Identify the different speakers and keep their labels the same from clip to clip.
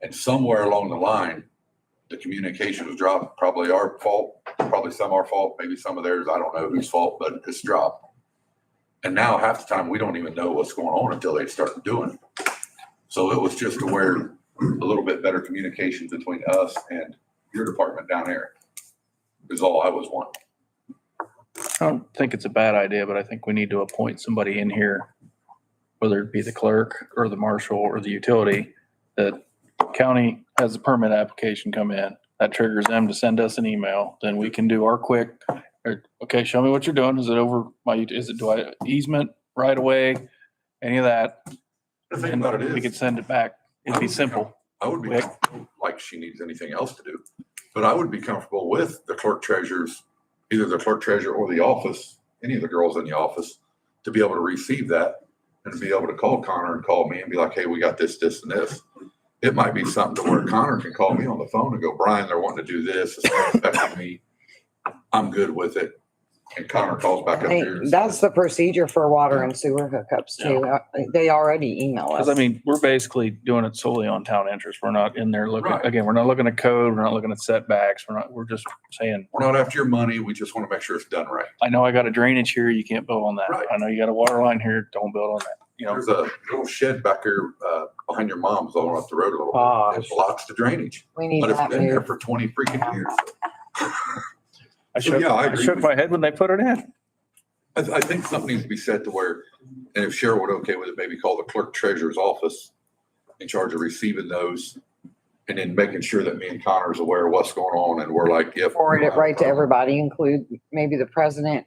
Speaker 1: And somewhere along the line, the communication was dropped, probably our fault, probably some our fault, maybe some of theirs, I don't know whose fault, but it's dropped. And now half the time, we don't even know what's going on until they start doing it. So it was just to where a little bit better communication between us and your department down there is all I was wanting.
Speaker 2: I don't think it's a bad idea, but I think we need to appoint somebody in here, whether it be the clerk or the marshal or the utility, that county has a permit application come in. That triggers them to send us an email, then we can do our quick, or, okay, show me what you're doing. Is it over my, ut- is it, do I easement right away? Any of that?
Speaker 1: The thing about it
Speaker 2: We could
Speaker 1: is,
Speaker 2: send it back. It'd be simple.
Speaker 1: I would be
Speaker 2: Rick.
Speaker 1: comfortable, like she needs anything else to do, but I would be comfortable with the clerk treasurer's, either the clerk treasurer or the office, any of the girls in the office, to be able to receive that and to be able to call Connor and call me and be like, hey, we got this, this, and this. It might be something to where Connor can call me on the phone and go, Brian, they're wanting to do this, it's not affecting me. I'm good with it. And Connor calls back up
Speaker 3: Hey,
Speaker 1: here. and
Speaker 3: That's
Speaker 1: says,
Speaker 3: the procedure for water and sewer hookups too. Uh, They already email us.
Speaker 2: Because I mean, we're basically doing it solely on town interest. We're not in there looking,
Speaker 1: Right.
Speaker 2: again, we're not looking at code, we're not looking at setbacks, we're not, we're just saying,
Speaker 1: We're not after your money, we just want to make sure it's done right.
Speaker 2: I know I got a drainage here, you can't build on
Speaker 1: Right.
Speaker 2: that. I know you got a water line here, don't build on that, you know?
Speaker 1: There's a little shed back here, uh, behind your mom's all up the road a little bit.
Speaker 2: Ah,
Speaker 1: It blocks the drainage,
Speaker 3: We need
Speaker 1: but it's
Speaker 3: that
Speaker 1: been there
Speaker 3: moved.
Speaker 1: for twenty freaking years.
Speaker 2: I
Speaker 1: So,
Speaker 2: shook,
Speaker 1: yeah, I
Speaker 2: I
Speaker 1: agree
Speaker 2: shook
Speaker 1: with
Speaker 2: my head when they put it in.
Speaker 1: I, I think something needs to be said to where, and if Cheryl would okay with it, maybe call the clerk treasurer's office in charge of receiving those and then making sure that me and Connor's aware of what's going on and we're like, yep. uh,
Speaker 3: Forward it right to everybody, include maybe the president,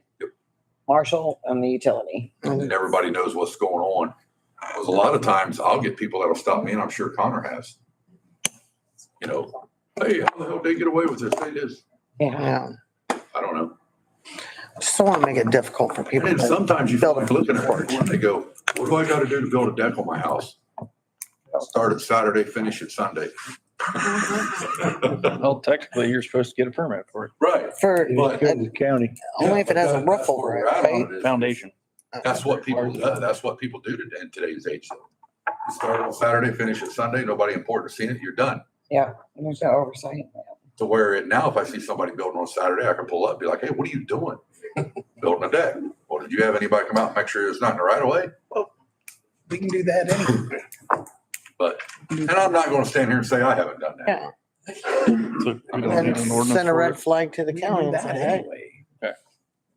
Speaker 3: marshal and the utility.
Speaker 1: And everybody knows what's going on. Because a lot of times I'll get people that'll stop me and I'm sure Connor has. You know, hey, how the hell did they get away with this? They just,
Speaker 3: Yeah.
Speaker 4: Yeah,
Speaker 1: I don't know.
Speaker 4: just don't want to make it difficult for people.
Speaker 1: And then sometimes you feel
Speaker 4: Building
Speaker 1: like looking at
Speaker 4: report.
Speaker 1: people and they go, what do I gotta do to build a deck on my house? Start it Saturday, finish it Sunday.
Speaker 2: Well, technically, you're supposed to get a permit for it,
Speaker 1: Right.
Speaker 3: For,
Speaker 1: But-
Speaker 3: and
Speaker 4: county. uh, Only if it has a
Speaker 1: That's where
Speaker 4: roof over it,
Speaker 1: we're at on
Speaker 4: right?
Speaker 1: it is-
Speaker 2: foundation.
Speaker 1: That's what people, do- that's what people do today in today's age. You Start on Saturday, finish it Sunday, nobody important seeing it, you're done.
Speaker 3: there's no oversight.
Speaker 1: To where it now, if I see somebody building on Saturday, I can pull up, be like, hey, what are you doing? Building a deck. Well, did you have anybody come out and make sure it's not in the right of way?
Speaker 4: We can do that anyway.
Speaker 1: But, and I'm not gonna stand here and say I haven't done that.
Speaker 4: Yeah.
Speaker 2: So we don't need
Speaker 4: And
Speaker 2: an ordinance
Speaker 4: send a
Speaker 2: for
Speaker 4: red
Speaker 2: it.
Speaker 4: flag to the
Speaker 5: We can
Speaker 4: county
Speaker 5: do
Speaker 4: and
Speaker 5: that
Speaker 4: say, hey.
Speaker 5: anyway.
Speaker 2: Okay.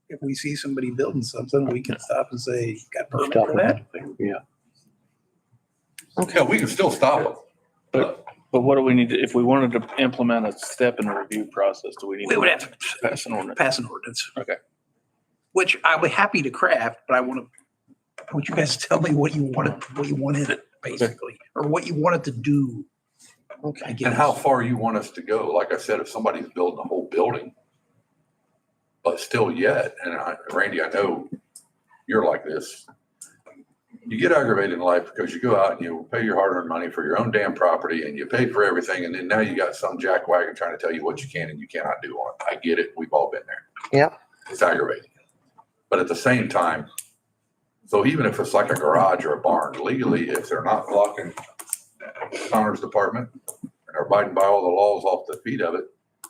Speaker 5: If we see somebody building something, we can stop and say, got permit for that?
Speaker 1: Yeah, we can still stop them.
Speaker 2: But what do we need, to- if we wanted to implement a step in the review process, do we need?
Speaker 5: We would have to
Speaker 2: Pass an ordinance.
Speaker 5: pass an ordinance.
Speaker 2: Okay.
Speaker 5: Which I'll be happy to craft, but I want to, I want you guys to tell me what you wanted, what you wanted it basically, or what you wanted to do. I
Speaker 4: Okay.
Speaker 5: guess.
Speaker 1: And how far you want us to go? Like I said, if somebody's building a whole building, but still yet, and I, Randy, I know you're like this. You get aggravated in life because you go out and you pay your hard-earned money for your own damn property and you pay for everything, and then now you got some jackwagon trying to tell you what you can and you cannot do on it. I get it. We've all been there.
Speaker 4: Yep.
Speaker 1: It's aggravating. But at the same time, so even if it's like a garage or a barn, legally, if they're not blocking Connor's department, and are abiding by all the laws off the feet of it,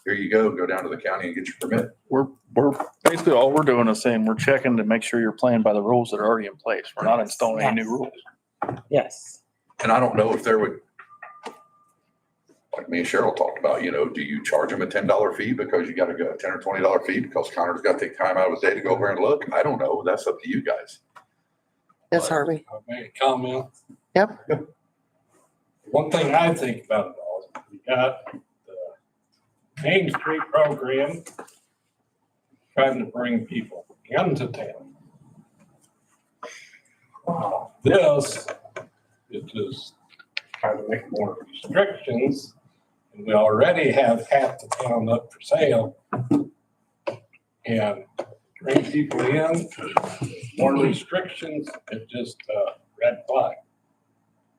Speaker 1: here you go, go down to the county and get your permit.
Speaker 2: We're, we're, basically, all we're doing is saying, we're checking to make sure you're playing by the rules that are already in place. We're not installing any new rules.
Speaker 3: Yes.
Speaker 1: And I don't know if there would, like me and Cheryl talked about, you know, do you charge them a ten dollar fee because you gotta go a ten or twenty dollar fee because Connor's got to take time out of his day to go over and look? I don't know. That's up to you guys.
Speaker 4: Yes, Harvey.
Speaker 6: I'll make a comment.
Speaker 4: Yep.
Speaker 6: One thing I think about it all, is we got the Main Street program trying to bring people into town. Uh, This, it is trying to make more restrictions, and we already have half the town up for sale. And bring people in, more restrictions, it just, uh, red flag.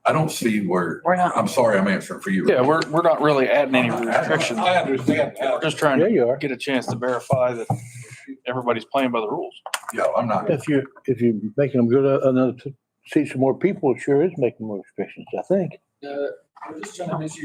Speaker 1: I don't see where,
Speaker 3: We're not,
Speaker 1: I'm sorry, I'm answering for you.
Speaker 2: Yeah, we're, we're not really adding any restrictions.
Speaker 6: I understand
Speaker 2: We're
Speaker 6: that.
Speaker 2: just trying
Speaker 7: Yeah,
Speaker 2: to
Speaker 7: you are.
Speaker 2: get a chance to verify that everybody's playing by the rules.
Speaker 1: Yeah, I'm not.
Speaker 7: If you, if you're making uh, them go to another, see some more people, it sure is making more restrictions, I think.
Speaker 8: Uh, I'm just trying to make sure you